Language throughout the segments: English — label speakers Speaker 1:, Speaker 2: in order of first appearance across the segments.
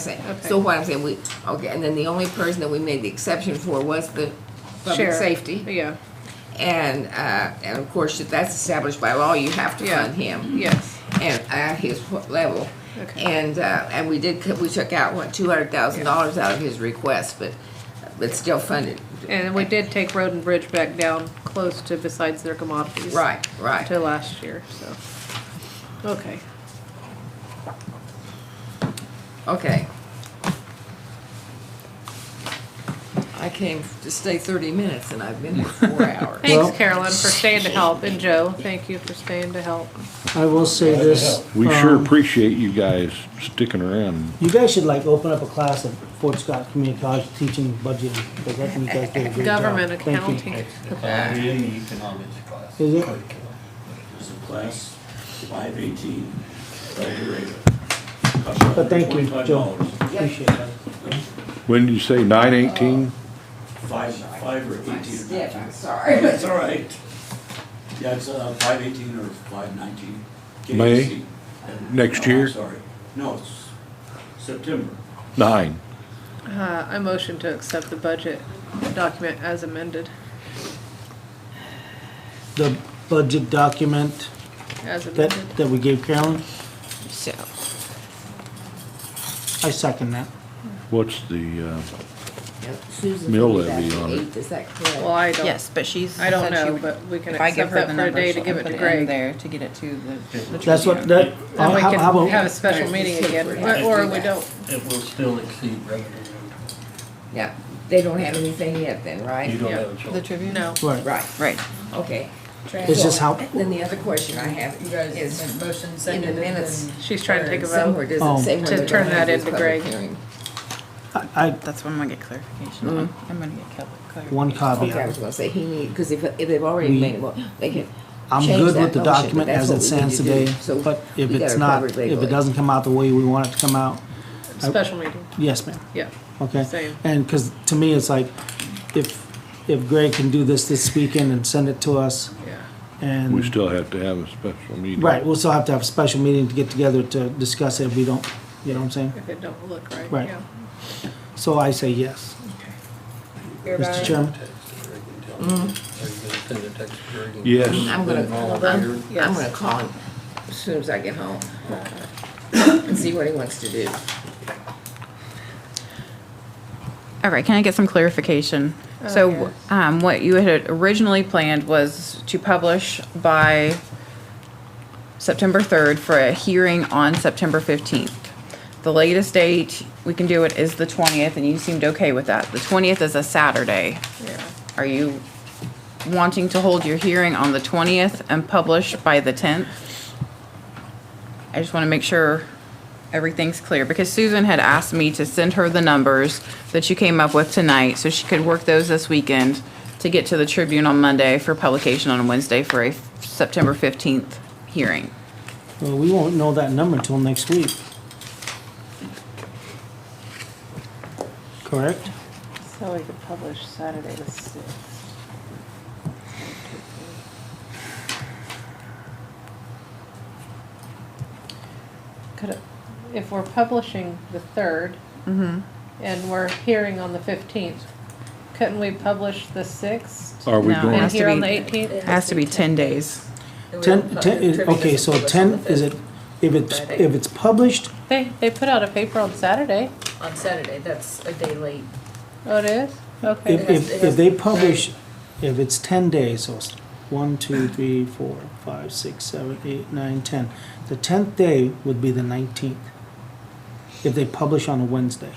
Speaker 1: saying.
Speaker 2: Okay.
Speaker 1: So what I'm saying, we, okay, and then the only person that we made the exception for was the public
Speaker 2: Sheriff.
Speaker 1: safety.
Speaker 2: Yeah,
Speaker 1: And, uh, and of course, if that's established by law, you have to
Speaker 2: Yeah.
Speaker 1: fund him.
Speaker 2: yes,
Speaker 1: And at his level.
Speaker 2: Okay.
Speaker 1: And, uh, and we did, cut- we took out, what, two hundred thousand dollars out of his request, but, but still funded.
Speaker 2: and we did take road and bridge back down close to besides their commodities.
Speaker 1: Right, right.
Speaker 2: To last year, so, okay,
Speaker 1: Okay. I came to stay thirty minutes and I've been here four hours.
Speaker 2: thanks
Speaker 3: Well-
Speaker 2: Carolyn for staying to help, and Joe, thank you for staying to help.
Speaker 3: I will say this.
Speaker 4: We sure
Speaker 3: um,
Speaker 4: appreciate you guys sticking around.
Speaker 3: You guys should like open up a class at Fort Scott Community College teaching budgeting, because I think you guys do a great job.
Speaker 2: Government
Speaker 3: Thank you.
Speaker 2: accounting,
Speaker 5: It's economy and the economics class.
Speaker 3: Is it?
Speaker 5: There's a class, five eighteen, graduated.
Speaker 3: But thank you, Joe. Appreciate it.
Speaker 4: When did you say, nine eighteen?
Speaker 5: Five, five or eighteen.
Speaker 1: Stiff, I'm sorry.
Speaker 5: It's all right. Yeah, it's, uh, five eighteen or five nineteen.
Speaker 4: May? Next year?
Speaker 5: Sorry, no, it's September.
Speaker 4: Nine.
Speaker 2: uh, I motion to accept the budget document as amended,
Speaker 3: The budget document
Speaker 2: as
Speaker 3: that,
Speaker 2: amended.
Speaker 3: that we gave Carolyn,
Speaker 1: So,
Speaker 3: I second that.
Speaker 4: What's the,
Speaker 1: yeah,
Speaker 4: uh,
Speaker 1: Susan
Speaker 4: Mill
Speaker 1: told me that's
Speaker 4: levy
Speaker 1: the
Speaker 4: on it.
Speaker 1: eighth, is that correct?
Speaker 2: Well, I don't,
Speaker 6: Yes, but she's.
Speaker 2: I don't
Speaker 6: said she
Speaker 2: know,
Speaker 6: would-
Speaker 2: but we can
Speaker 6: If I give
Speaker 2: accept
Speaker 6: her
Speaker 2: that
Speaker 6: the
Speaker 2: for a
Speaker 6: number,
Speaker 2: day to
Speaker 6: she'll
Speaker 2: give
Speaker 6: put
Speaker 2: it to
Speaker 6: it in
Speaker 2: Greg.
Speaker 6: there to get it to the- the.
Speaker 3: That's what,
Speaker 6: Tribune.
Speaker 3: that,
Speaker 2: Then
Speaker 3: how,
Speaker 2: we
Speaker 3: how
Speaker 2: can have a
Speaker 3: about,
Speaker 2: special meeting again,
Speaker 1: Right.
Speaker 2: or or we don't,
Speaker 5: It will still exceed revenue.
Speaker 1: Yeah, they don't have anything yet then,
Speaker 5: You
Speaker 1: right?
Speaker 5: don't
Speaker 2: Yeah.
Speaker 5: have a choice.
Speaker 6: The Tribune?
Speaker 2: no,
Speaker 3: right,
Speaker 1: Right,
Speaker 6: Right.
Speaker 1: okay.
Speaker 3: It's just how-
Speaker 1: Then the other question I have is,
Speaker 6: motion
Speaker 1: in the minutes,
Speaker 2: she's trying to take a
Speaker 1: somewhere
Speaker 2: vote.
Speaker 1: does
Speaker 3: Oh.
Speaker 1: it say when
Speaker 2: To
Speaker 1: they're
Speaker 2: turn
Speaker 1: gonna have
Speaker 2: that
Speaker 1: this
Speaker 2: into
Speaker 1: public
Speaker 2: Greg.
Speaker 1: hearing?
Speaker 3: I,
Speaker 6: That's what I'm gonna get clarification on. I'm gonna get cal-
Speaker 3: I-
Speaker 6: clarification.
Speaker 3: Mm-hmm. one copy of
Speaker 1: Okay, I was
Speaker 3: it.
Speaker 1: gonna say, he need, because if, if they've already
Speaker 3: We-
Speaker 1: made, well, they can
Speaker 3: I'm
Speaker 1: change
Speaker 3: good
Speaker 1: that
Speaker 3: with the
Speaker 1: motion, but
Speaker 3: document
Speaker 1: that's
Speaker 3: as
Speaker 1: what we
Speaker 3: it
Speaker 1: need
Speaker 3: stands
Speaker 1: to do.
Speaker 3: today,
Speaker 1: So
Speaker 3: but if
Speaker 1: we
Speaker 3: it's
Speaker 1: gotta
Speaker 3: not,
Speaker 1: cover it
Speaker 3: if
Speaker 1: legally.
Speaker 3: it doesn't come out the way we want it to come out,
Speaker 2: Special meeting,
Speaker 3: yes, ma'am.
Speaker 2: yeah.
Speaker 3: Okay,
Speaker 2: Same.
Speaker 3: and, cause to me, it's like, if, if Greg can do this this weekend and send it to us,
Speaker 2: Yeah,
Speaker 3: and.
Speaker 4: we still have to have a special meeting.
Speaker 3: Mm. Right, we'll still have to have a special meeting to get together to discuss it if we don't, you know what I'm saying?
Speaker 2: if it don't look right,
Speaker 3: Right.
Speaker 2: yeah.
Speaker 3: So I say yes. Mr. Chairman,
Speaker 4: Yes,
Speaker 1: Mm-hmm. Mm, I'm gonna, I'm, I'm
Speaker 2: Yes.
Speaker 1: gonna call him as soon as I get home and see what he wants to do.
Speaker 6: All right, can I get some clarification? So, um, what you had originally planned was to publish by September third for a hearing on September fifteenth. The latest date we can do it is the twentieth, and you seemed okay with that. The twentieth is a Saturday.
Speaker 2: Yeah.
Speaker 6: Are you wanting to hold your hearing on the 20th and publish by the 10th? I just want to make sure everything's clear, because Susan had asked me to send her the numbers that you came up with tonight, so she could work those this weekend to get to the Tribune on Monday for publication on Wednesday for a September 15th hearing.
Speaker 3: well, we won't know that number until next week. Correct?
Speaker 2: So we could publish Saturday the sixth. Could, it- if we're publishing the third and we're hearing on the fifteenth, couldn't we publish the sixth?
Speaker 4: are we
Speaker 6: No.
Speaker 4: going,
Speaker 2: And
Speaker 6: has to
Speaker 2: here on
Speaker 6: be-
Speaker 2: the eighteenth?
Speaker 6: Has to be 10 days.
Speaker 3: Ten, ten, is- okay, so ten, is it, if it's, if it's published,
Speaker 2: They, they put out a paper on Saturday.
Speaker 7: On Saturday, that's a day late.
Speaker 2: Oh, it is? Okay.
Speaker 3: if, if, if they publish, if it's ten days, so it's one, two, three, four, five, six, seven, eight, nine, ten. The tenth day would be the nineteenth, if they publish on a Wednesday.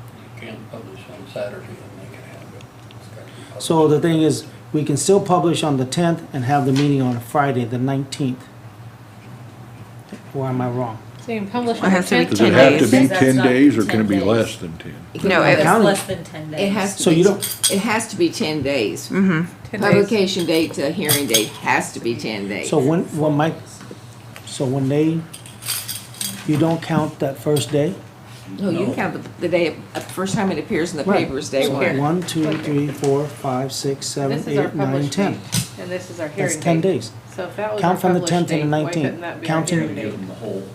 Speaker 5: You can't publish on Saturday and make it happen. It's got to be published.
Speaker 3: So the thing is, we can still publish on the tenth and have the meeting on a Friday, the nineteenth. Or am I wrong?
Speaker 2: So you can publish
Speaker 6: It
Speaker 2: on the
Speaker 6: has to be
Speaker 2: tenth.
Speaker 4: does it have to be
Speaker 7: Ten days.
Speaker 4: ten days or
Speaker 7: Ten
Speaker 4: can it be
Speaker 7: days.
Speaker 4: less than ten?
Speaker 6: No, it-
Speaker 3: County.
Speaker 7: It's less than ten days.
Speaker 1: It has to
Speaker 3: So
Speaker 1: be,
Speaker 3: you Mm-hmm.
Speaker 1: it has to be ten days. Publication date to hearing date has to be ten days.
Speaker 3: So when, when my, so when they, you don't count that first day?
Speaker 1: No, you count the, the day, uh, the first time it appears in the
Speaker 3: Right.
Speaker 1: papers, day
Speaker 3: So
Speaker 1: one.
Speaker 3: One, two, three, four, five, six, seven,
Speaker 2: This is our
Speaker 3: eight, nine,
Speaker 2: published
Speaker 3: ten.
Speaker 2: date, and this is our hearing
Speaker 3: That's
Speaker 2: date.
Speaker 3: ten days.
Speaker 2: So if that was our
Speaker 3: Count from the
Speaker 2: published
Speaker 3: tenth
Speaker 2: date,
Speaker 3: and the
Speaker 2: why couldn't
Speaker 3: nineteenth.
Speaker 2: that be our
Speaker 3: Counting-
Speaker 2: hearing
Speaker 5: Give
Speaker 2: date?
Speaker 5: them the whole